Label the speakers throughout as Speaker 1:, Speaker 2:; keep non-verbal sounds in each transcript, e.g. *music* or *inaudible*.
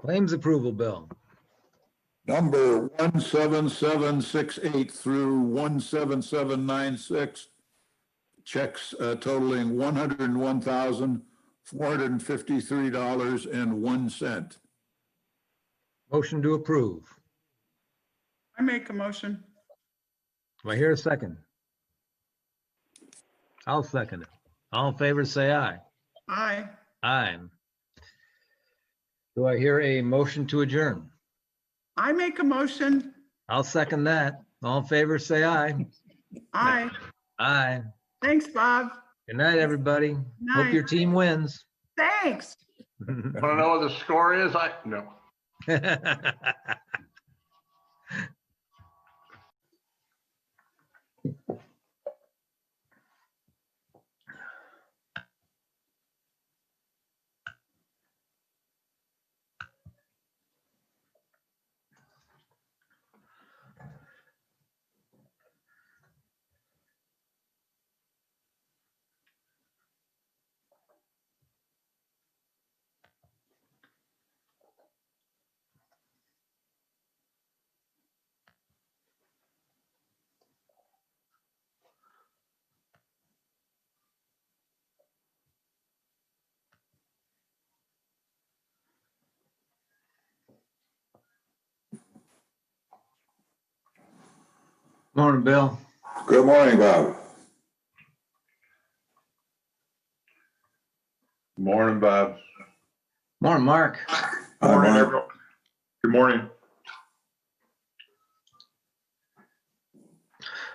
Speaker 1: Claims approval, Bill.
Speaker 2: Number 17768 through 17796, checks uh, totaling $101,453.01.
Speaker 1: Motion to approve.
Speaker 3: I make a motion.
Speaker 1: Do I hear a second? I'll second it. All in favor, say aye.
Speaker 3: Aye.
Speaker 1: Aye. Do I hear a motion to adjourn?
Speaker 3: I make a motion.
Speaker 1: I'll second that. All in favor, say aye.
Speaker 3: Aye.
Speaker 1: Aye.
Speaker 3: Thanks, Bob.
Speaker 1: Good night, everybody. Hope your
Speaker 3: Night.
Speaker 1: team wins. *laughs*
Speaker 3: Thanks.
Speaker 4: Want to know what the score is? I, no.
Speaker 1: Morning, Bill.
Speaker 2: Good morning, Bob.
Speaker 5: Morning, Bob.
Speaker 1: Morning, Mark.
Speaker 5: Morning, everyone. Good morning.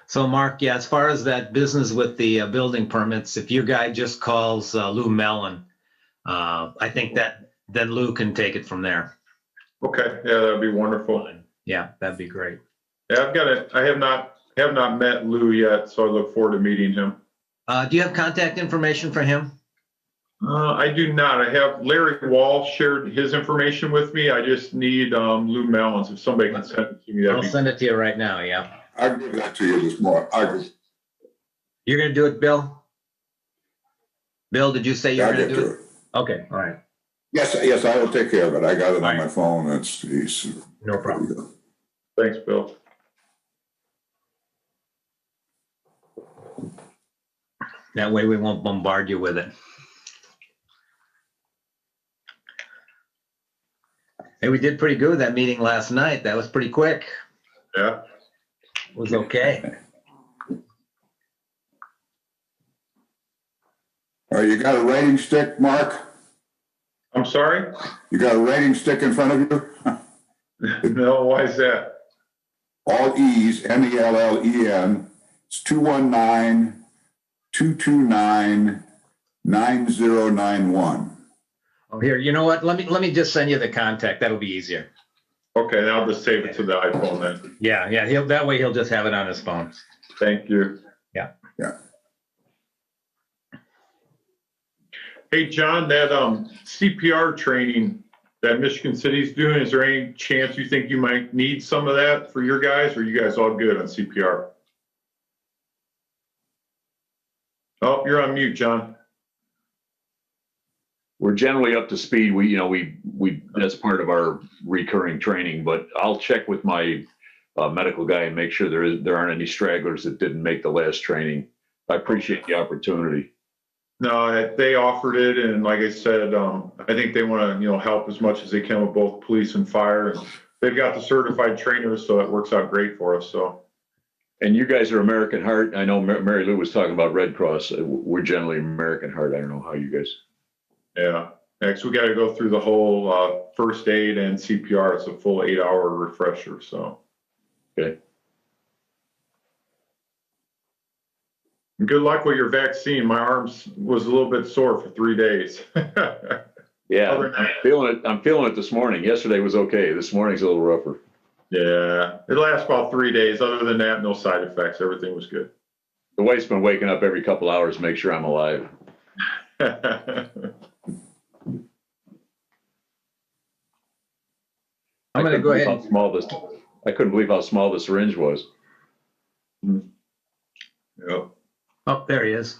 Speaker 1: So Mark, yeah, as far as that business with the uh, building permits, if your guy just calls uh, Lou Mellon, uh, I think that then Lou can take it from there.
Speaker 5: Okay, yeah, that'd be wonderful.
Speaker 1: Yeah, that'd be great.
Speaker 5: Yeah, I've got it. I have not, have not met Lou yet, so I look forward to meeting him.
Speaker 1: Uh, do you have contact information for him?
Speaker 5: Uh, I do not. I have Larry Wall shared his information with me. I just need, um, Lou Mellons. If somebody can send it to me,
Speaker 1: I'll
Speaker 5: that'd be,
Speaker 1: send it to you right now. Yeah,
Speaker 2: I'll give that to you this morning. I,
Speaker 1: you're gonna do it, Bill. Bill, did you say you're
Speaker 2: I'll
Speaker 1: gonna
Speaker 2: get
Speaker 1: do
Speaker 2: to
Speaker 1: it?
Speaker 2: it.
Speaker 1: Okay, all right,
Speaker 2: Yes, yes, I will take care of it. I got it on my phone. It's, he's,
Speaker 1: no problem.
Speaker 5: thanks, Bill.
Speaker 1: That way we won't bombard you with it. Hey, we did pretty good with that meeting last night. That was pretty quick.
Speaker 5: Yeah.
Speaker 1: It was okay.
Speaker 2: all right, uh, you got a rating stick, Mark?
Speaker 5: I'm sorry?
Speaker 2: You got a rating stick in front of you?
Speaker 5: No, why is that?
Speaker 2: all E's, M E L L E N. It's 219 229 9091.
Speaker 1: Oh, here, you know what? Let me, let me just send you the contact. That'll be easier.
Speaker 5: Okay, then I'll just save it to the iPhone then.
Speaker 1: Yeah, yeah, he'll, that way he'll just have it on his phone.
Speaker 5: Thank you.
Speaker 1: Yeah.
Speaker 2: Yeah.
Speaker 5: Hey, John, that um, CPR training that Michigan City's doing, is there any chance you think you might need some of that for your guys? Or are you guys all good on CPR? Oh, you're on mute, John.
Speaker 6: We're generally up to speed. We, you know, we, we, that's part of our recurring training, but I'll check with my uh, medical guy and make sure there is, there aren't any stragglers that didn't make the last training. I appreciate the opportunity.
Speaker 5: No, they offered it, and like I said, um, I think they want to, you know, help as much as they can with both police and fire. They've got the certified trainers, so it works out great for us, so.
Speaker 6: And you guys are American Heart. I know Ma- Mary Lou was talking about Red Cross. Uh, We're generally American Heart. I don't know how you guys.
Speaker 5: Yeah, next we gotta go through the whole uh, first aid and CPR. It's a full eight hour refresher, so.
Speaker 6: Okay.
Speaker 5: And Good luck with your vaccine. My arms was a little bit sore for three days.
Speaker 6: *laughs* Yeah,
Speaker 5: Other
Speaker 6: I'm
Speaker 5: than-
Speaker 6: feeling it. I'm feeling it this morning. Yesterday was okay. This morning's a little rougher.
Speaker 5: Yeah, it lasts about three days. Other than that, no side effects. Everything was good. *laughs*
Speaker 6: The wife's been waking up every couple hours to make sure I'm alive.
Speaker 1: I'm
Speaker 6: I
Speaker 1: gonna
Speaker 6: couldn't
Speaker 1: go
Speaker 6: believe
Speaker 1: ahead.
Speaker 6: how Small this, I couldn't believe how small the syringe was.
Speaker 5: Yep.
Speaker 1: Oh, there he is.